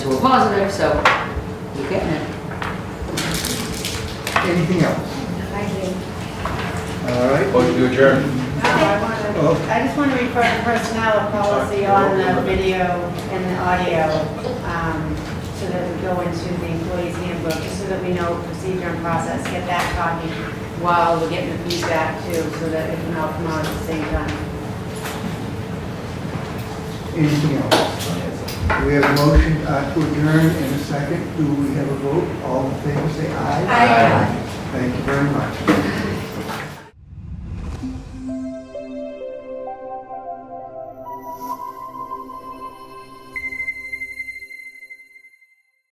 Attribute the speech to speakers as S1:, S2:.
S1: positive, so you're getting it.
S2: Anything else? All right.
S3: Motion to adjourn.
S4: No, I want
S2: Oh.
S4: to, I just want to refer to personnel policy on the video and the audio, um, so that we go into the employee's handbook, just so that we know procedure and process, get that copy while we're getting the feedback too, so that it can all come out at the same time.
S2: Anything else? We have a motion uh, to adjourn in a second. Do we have a vote? All in favor, say aye.
S4: Aye.
S2: Thank you very much.